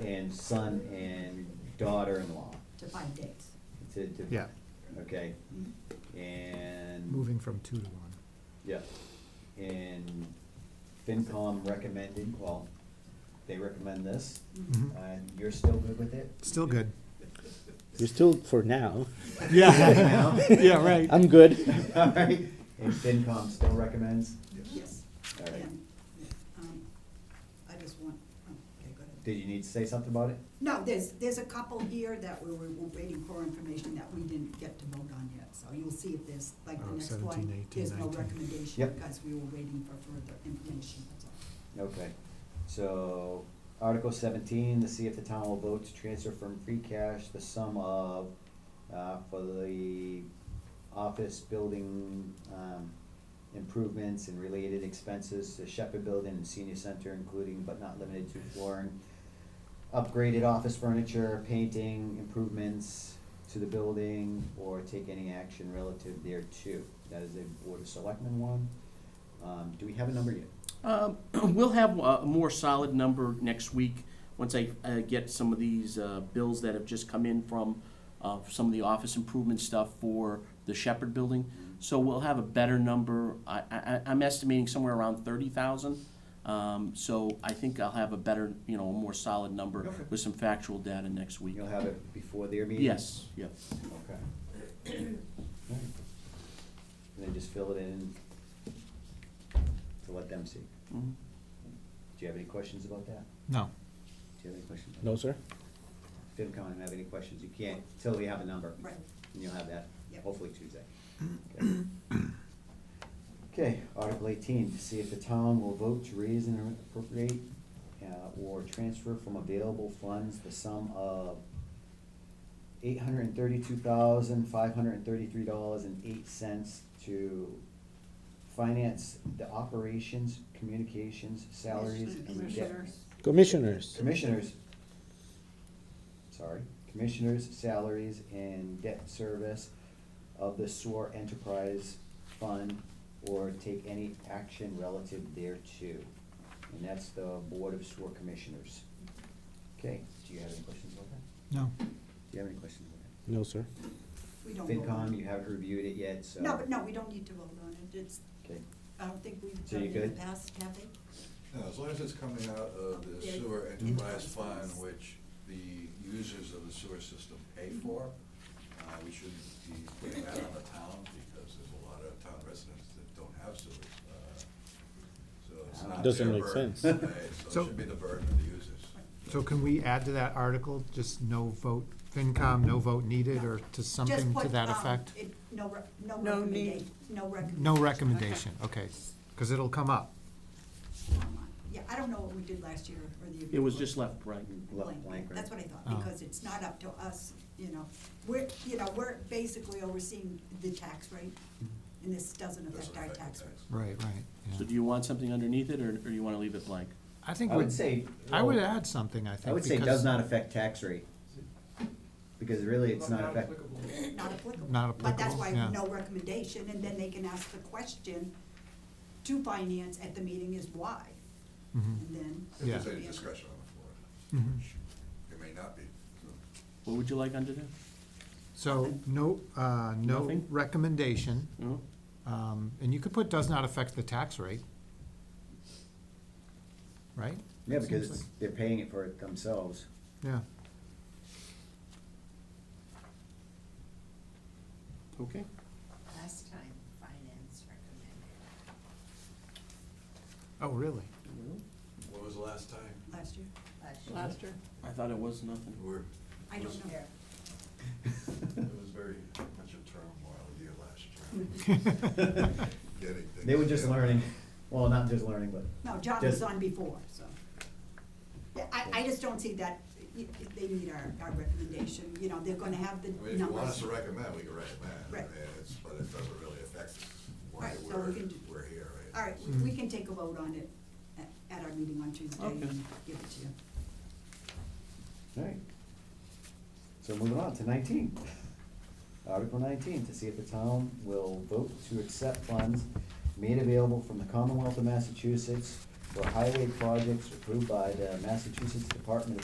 and son and daughter-in-law to find dates. Mm-hmm. to, to. Yeah, Okay, and. moving from two to one. Yeah, and FinCom recommended, well, they recommend this, Mhm. Mhm. and you're still good with it? Still good. You're still for now. Yeah, yeah, right. I'm good. All right, and FinCom still recommends? Yes. All right, and, um, I just want, oh, okay, go ahead. did you need to say something about it? No, there's, there's a couple here that we were waiting for information that we didn't get to vote on yet, so you'll see if there's, like, Oh, the next 17, one, 18, there's no 19. recommendation, Yep. because we were waiting for further information, that's all. Okay, so Article seventeen, to see if the town will vote to transfer from free cash the sum of, uh, for the office building, um, improvements and related expenses to Shepherd Building and Senior Center, including but not limited to flooring, upgraded office furniture, painting, improvements to the building, or take any action relative thereto. That is a Board of Selectmen one. Um, do we have a number yet? Um, We'll have a a more solid number next week, once I uh, get some of these uh, bills that have just come in from uh, some of the office improvement stuff for the Shepherd Building. So we'll have a better number. I, I, I'm estimating somewhere around thirty thousand. Um, So I think I'll have a better, you know, a more solid number Okay. with some factual data next week. You'll have it before their meeting? Yes, yeah. Okay. Alright. And then just fill it in to let them see. Mhm. Do you have any questions about that? No, Do you have any questions? No, sir. FinCom, have any questions? You can't till we have a number. Right. And you'll have that Yep. hopefully Tuesday. Okay. Okay, Article eighteen, to see if the town will vote to raise and appropriate uh, or transfer from available funds the sum of eight hundred and thirty-two thousand, five hundred and thirty-three dollars and eight cents to finance the operations, communications, salaries, and debt. Commissioners. Commissioners. Commissioners, sorry, commissioners' salaries and debt service of the SOAR Enterprise Fund or take any action relative thereto. And that's the Board of SOAR Commissioners. Okay, do you have any questions about that? no. Do you have any questions about that? No, sir. We don't vote on FinCom, you it. haven't reviewed it yet, so. No, but no, we don't need to vote on it, it's, Okay, I don't think we've So done you it in the good? past, have we? No, as long as it's coming out of the Yeah. sewer enterprise fund, Mhm. which the users of the sewer system pay for, uh, we shouldn't be putting that on the town, because there's a lot of town residents that don't have sewers. uh, So it's not Doesn't their make burden, sense. right? So So- it should be the burden of the users. So can we add to that article, just no vote, FinCom, no vote needed, or to Just something to put, that um, effect? it- No, re- no No need. recommendation, no recommendation. No recommendation, okay, because it'll come up. Yeah, I don't know what we did last year or the year It was before. just left, right? left blank, right? That's what I thought, Oh. because it's not up to us, you know, we're, you know, we're basically overseeing the tax rate, Mm-hmm. and this doesn't affect Doesn't our affect tax the rate. tax. Right, right, So do you want something underneath it, or, or you wanna leave it blank? I think I would we'd- say- I would add something, I think. I would say because- does not affect tax rate. Because really, it's not affect, Not applicable. Not But that's applicable, why yeah. no recommendation, and then they can ask the question to finance at the meeting is why, Mhm, and then. If there's Yeah. any discretion on the floor, mhm. it may not be. What would you like under there? So, no, uh, no Nothing? recommendation, No? um, and you could put does not affect the tax rate. Right? yeah, That because seems it's- like- they're paying it for it themselves. Yeah, Okay. Last time, finance recommended. oh, really? When was the last time? Last year, Last Last year. I thought it was nothing. We're, I don't know. year. it was very much a turmoil year last year. Getting things They were just together. learning, well, not just learning, but. No, John was Just- on before, so. Yeah, I, I just don't see that, y- they need our, our recommendation, you know, they're gonna have the I mean, if you want us numbers. to recommend, we can recommend, I Right. mean, it's, but it doesn't really affect why Right, so we're, we can do- we're here, right? All right, we- we can take a vote on it at, at our meeting on Tuesday and Okay. give it to you. Alright. So moving on to nineteen. Article nineteen, to see if the town will vote to accept funds made available from the Commonwealth of Massachusetts for highway projects approved by the Massachusetts Department of